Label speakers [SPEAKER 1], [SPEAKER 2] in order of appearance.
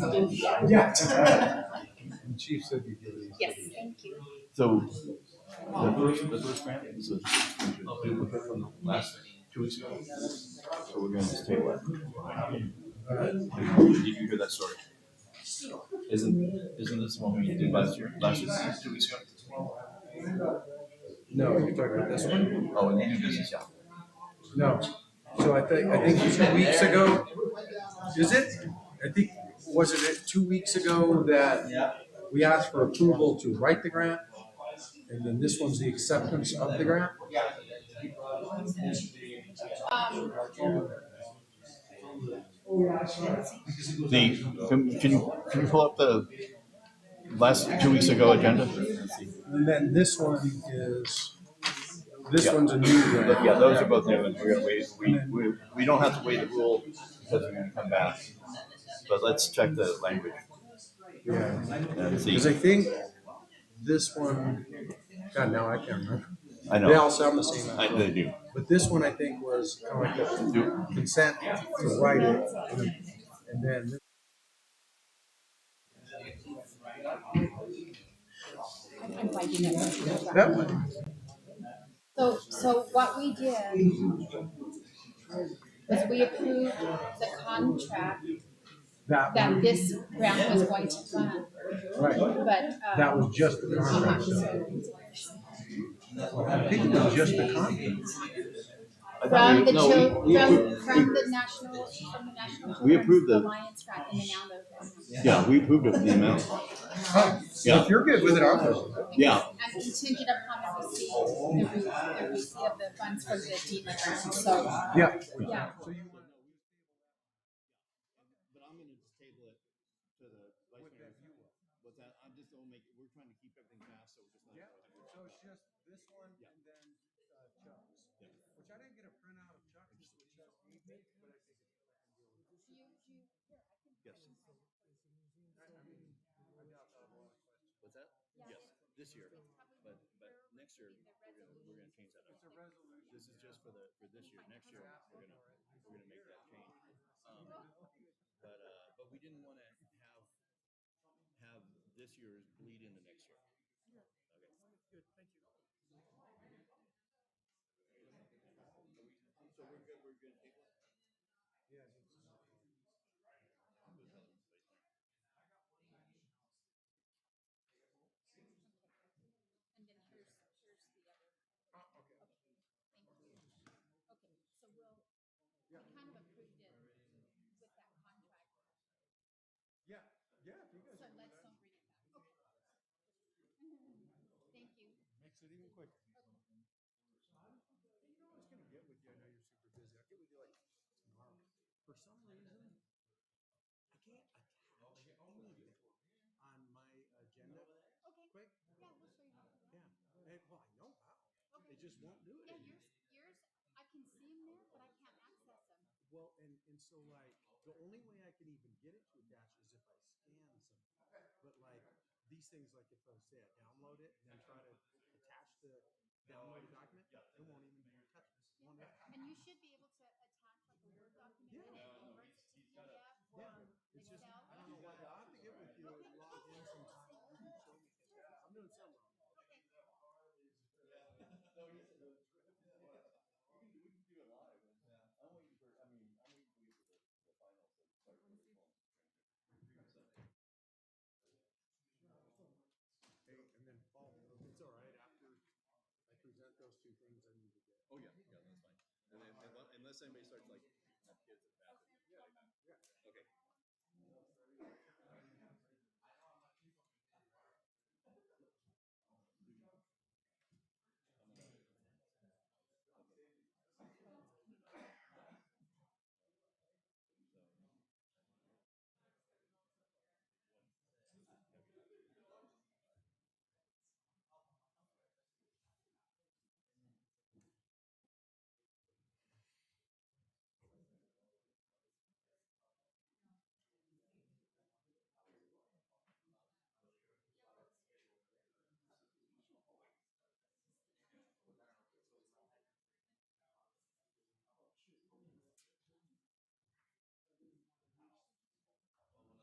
[SPEAKER 1] Yeah. it's okay.
[SPEAKER 2] The chief said he'd give these.
[SPEAKER 3] Yes, thank you.
[SPEAKER 4] So, the first, the first grant is a duplicate from the last two weeks ago. So we're gonna just table it. You can hear that story. Isn't, isn't this one we did last year, last year, two weeks ago?
[SPEAKER 2] No, you're talking about this one?
[SPEAKER 4] Oh, and new business, yeah.
[SPEAKER 2] No. So I think, I think two weeks ago, is it? I think, wasn't it two weeks ago that we asked for approval to write the grant? And then this one's the acceptance of the grant?
[SPEAKER 3] Um,
[SPEAKER 4] The, can, can you, can you pull up the last two weeks ago agenda?
[SPEAKER 2] And then this one is, this
[SPEAKER 4] Yeah.
[SPEAKER 2] one's a new
[SPEAKER 4] But
[SPEAKER 2] grant.
[SPEAKER 4] yeah, those are both new ones. We're gonna wait, we, we, we don't have to wait the rule because we're gonna come back. But let's check the language
[SPEAKER 2] Yeah.
[SPEAKER 4] and see.
[SPEAKER 2] Cause I think this one, God, now I can't remember.
[SPEAKER 4] I
[SPEAKER 2] They
[SPEAKER 4] know,
[SPEAKER 2] all sound the same.
[SPEAKER 4] I, they do.
[SPEAKER 2] But this one, I think, was kind of like the consent to write it, and- and then.
[SPEAKER 3] I'm I'm glad you know.
[SPEAKER 2] That one.
[SPEAKER 3] So, so what we did was we approved the contract
[SPEAKER 2] That
[SPEAKER 3] that
[SPEAKER 2] one,
[SPEAKER 3] this grant was going to fund,
[SPEAKER 2] right,
[SPEAKER 3] but,
[SPEAKER 2] that
[SPEAKER 3] uh.
[SPEAKER 2] was just the
[SPEAKER 3] uh-huh,
[SPEAKER 2] contract.
[SPEAKER 3] so-
[SPEAKER 2] I think it was just the contract.
[SPEAKER 4] I thought
[SPEAKER 3] From
[SPEAKER 4] we-
[SPEAKER 3] the
[SPEAKER 4] no, we-
[SPEAKER 3] chil,
[SPEAKER 4] we
[SPEAKER 3] from,
[SPEAKER 4] approved-
[SPEAKER 3] from the national, from the national.
[SPEAKER 4] We approved the-
[SPEAKER 3] Alliance grant in the amount of.
[SPEAKER 4] Yeah, we approved it, the amount.
[SPEAKER 2] Huh,
[SPEAKER 4] Yeah.
[SPEAKER 2] If you're good with it, I'm good. with it.
[SPEAKER 4] Yeah.
[SPEAKER 3] And contingent upon the receipt, the re- the receipt of the funds from the dealer, so,
[SPEAKER 2] Yeah.
[SPEAKER 3] yeah.
[SPEAKER 5] But I'm gonna just table it to the vice mayor. But that, I just don't make, we're trying to keep everything fast, so we're just not.
[SPEAKER 2] So it's just this one and then uh, Chuck's, which I didn't get a printout of Chuck's,
[SPEAKER 5] What's that? Yes, this year, but, but next year, we're gonna, we're gonna change that up. It's a resolution. This is just for the, for this year, next year, we're gonna, we're gonna make that change. Um, But, uh, but we didn't wanna have, have this year's bleed into next year. Okay. Good, thank you. So we're good, we're good.
[SPEAKER 3] And then here's, here's the other.
[SPEAKER 2] Oh,
[SPEAKER 3] Okay, so we'll, we kind of approved it with that contract,
[SPEAKER 2] Yeah, yeah, if you guys.
[SPEAKER 3] so let's don't bring it back. Okay. Thank you.
[SPEAKER 2] Makes it even quicker. You know, I was gonna get with you, I know you're super busy, I'll get with you like tomorrow. For some reason, I can't attach anything on my agenda
[SPEAKER 3] Okay,
[SPEAKER 2] quick.
[SPEAKER 3] yeah, we'll show you how to do it.
[SPEAKER 2] Yeah, it, well, oh, I know how, it just won't do
[SPEAKER 3] Yeah,
[SPEAKER 2] it.
[SPEAKER 3] yours, yours, I can see them there, but I can't access them.
[SPEAKER 2] Well, and, and so like, the only way I can even get it to attach is if I scan something. But like, these things, like if I say I download it and then try to attach the downloaded document, it won't even be attached. It won't attach.
[SPEAKER 3] And you should be able to attach like a Word document and it converts it to PDF or
[SPEAKER 2] It's just,
[SPEAKER 3] Excel.
[SPEAKER 2] I don't know why, I'll have to get with you and log in sometime. You can show me. I'm doing something wrong. Hey, and then follow, if it's all right, after I present those two things, I need to get.
[SPEAKER 5] Oh, yeah, yeah, that's fine. And then, unless, unless anybody starts like, have kids in the bathroom. Okay,